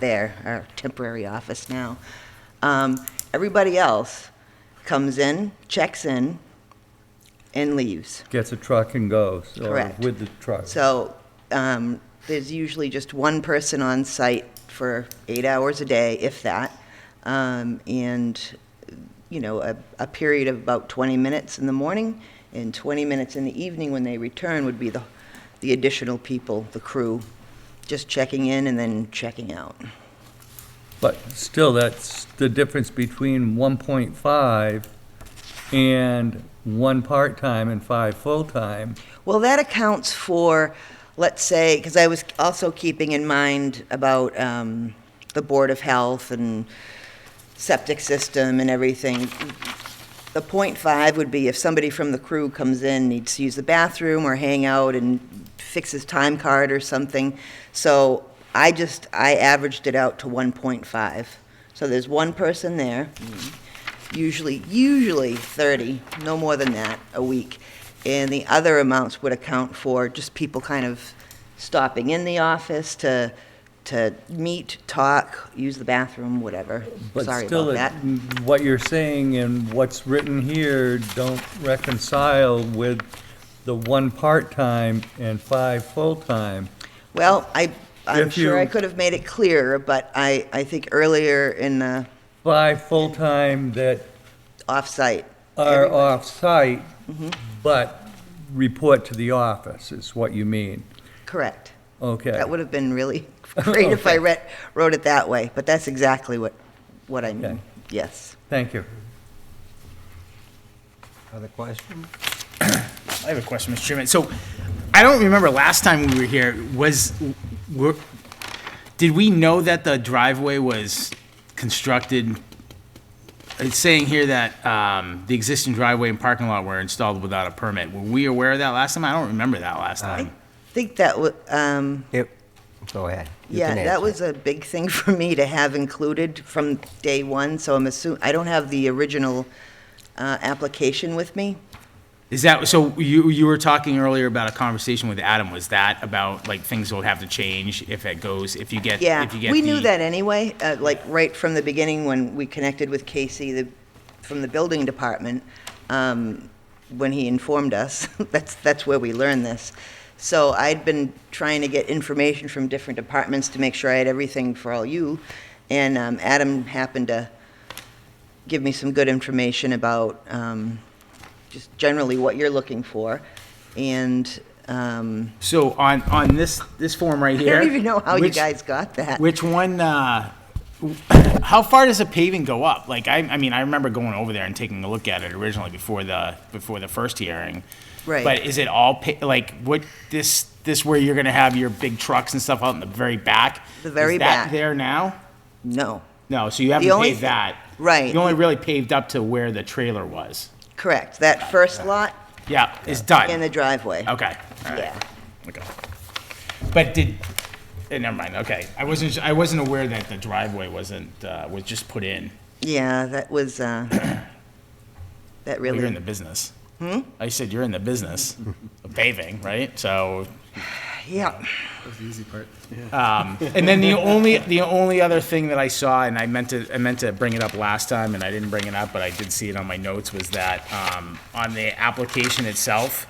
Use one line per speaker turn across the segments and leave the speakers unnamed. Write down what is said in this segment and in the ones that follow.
there, our temporary office now. Um, Everybody else comes in, checks in, and leaves.
Gets a truck and goes. or
Correct.
With the truck.
So um, there's usually just one person on site for eight hours a day, if that, Um, and, you know, a, a period of about 20 minutes in the morning and 20 minutes in the evening when they return would be the, the additional people, the crew, just checking in and then checking out.
But still, that's the difference between 1.5 and one part-time and five full-time.
Well, that accounts for, let's say, because I was also keeping in mind about um, the Board of Health and septic system and everything. The point five would be if somebody from the crew comes in, needs to use the bathroom or hang out and fix his time card or something. So I just, I averaged it out to 1.5. So there's one person there, usually, usually 30, no more than that, a week. And the other amounts would account for just people kind of stopping in the office to, to meet, talk, use the bathroom, whatever. Sorry
But still,
about
it-
that.
what you're saying and what's written here don't reconcile with the one part-time and five full-time.
Well, I, I'm
If
sure I
you-
could have made it clearer, but I, I think earlier in the
Five full-time that
off-site,
are off-site,
Mm-hmm.
but report to the office, is what you mean.
correct.
Okay.
That would have been really great if I
Okay.
read, wrote it that way, but that's exactly what, what I mean.
Okay.
Yes.
Thank you.
Other question?
I have a question, Mr. Chairman. So, I don't remember last time we were here, was, were, did we know that the driveway was constructed? It's saying here that, um, the existing driveway and parking lot were installed without a permit. Were we aware of that last time? I don't remember that last
I
Um,
time.
think that, wa- um,
Yep. Go ahead. You
Yeah,
can
that
answer.
was a big thing for me to have included from day one, so I'm assuming, I don't have the original uh, application with me.
Is that, so you, you were talking earlier about a conversation with Adam. Was that about, like, things will have to change if it goes, if you get,
Yeah,
if you get
we knew
the-
that anyway, uh, like, right from the beginning when we connected with Casey, the, from the building department, um, when he informed us, that's, that's where we learned this. So I'd been trying to get information from different departments to make sure I had everything for all you, and um, Adam happened to give me some good information about um, just generally what you're looking for, and um,
So on, on this, this form right
I
here.
don't even know how you
which-
guys got that.
Which one, uh, how far does the paving go up? Like, I, I mean, I remember going over there and taking a look at it originally before the, before the first hearing.
Right.
But is it all pa, like, what, this, this where you're gonna have your big trucks and stuff out in the very back?
The very
Is that
back.
there now?
No,
No, so you haven't
only
paved
thi-
that.
right.
You only really paved up to where the trailer was.
correct, that first lot
Yeah, it's
and
done.
the driveway.
Okay. all right.
Yeah.
Okay. But did, eh, never mind, okay. I wasn't, I wasn't aware that the driveway wasn't, uh, was just put in.
Yeah, that was, uh, that
Well, You're in
really,
the business. Hmm? I said you're in the business of paving, right? So,
yeah.
and then the only the only other thing that I saw, and I meant to I meant to bring it up last time, and I didn't bring it up, but I did see it on my notes, was that um, on the application itself,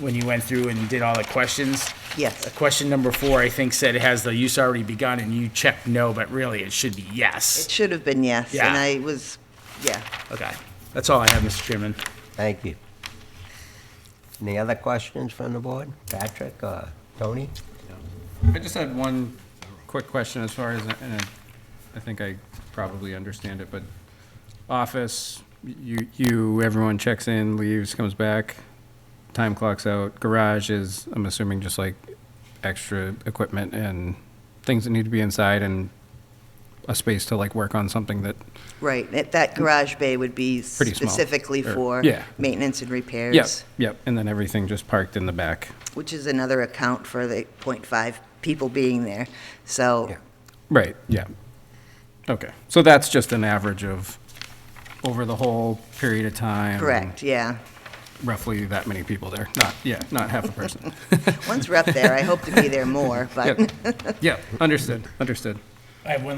when you went through and did all the questions. uh,
Yes.
Question number four, I think, said has the use already begun, and you checked no, but really it should be yes.
It should have been yes, and
Yeah.
I was, yeah.
Okay, that's all I have, Mr. Chairman.
Thank you. Any other questions from the board? Patrick or Tony?
I just had one quick question as far as, and I- I think I probably understand it, but office, you, you, everyone checks in, leaves, comes back, time clocks out, garage is, I'm assuming, just like extra equipment and things that need to be inside and a space to like work on something that,
Right, that- that garage bay would be
Pretty small,
specifically
or-
for
yeah.
maintenance and repairs.
yep, yep, and then everything just parked in the back.
Which is another account for the .5 people being there, so,
Yeah.
Right, yeah. Okay, so that's just an average of over the whole period of time.
correct, yeah.
Roughly that many people there, not, yeah, not half a person.
Once we're up there, I hope to be there more, but,
Yep, yep, understood, understood.
I have one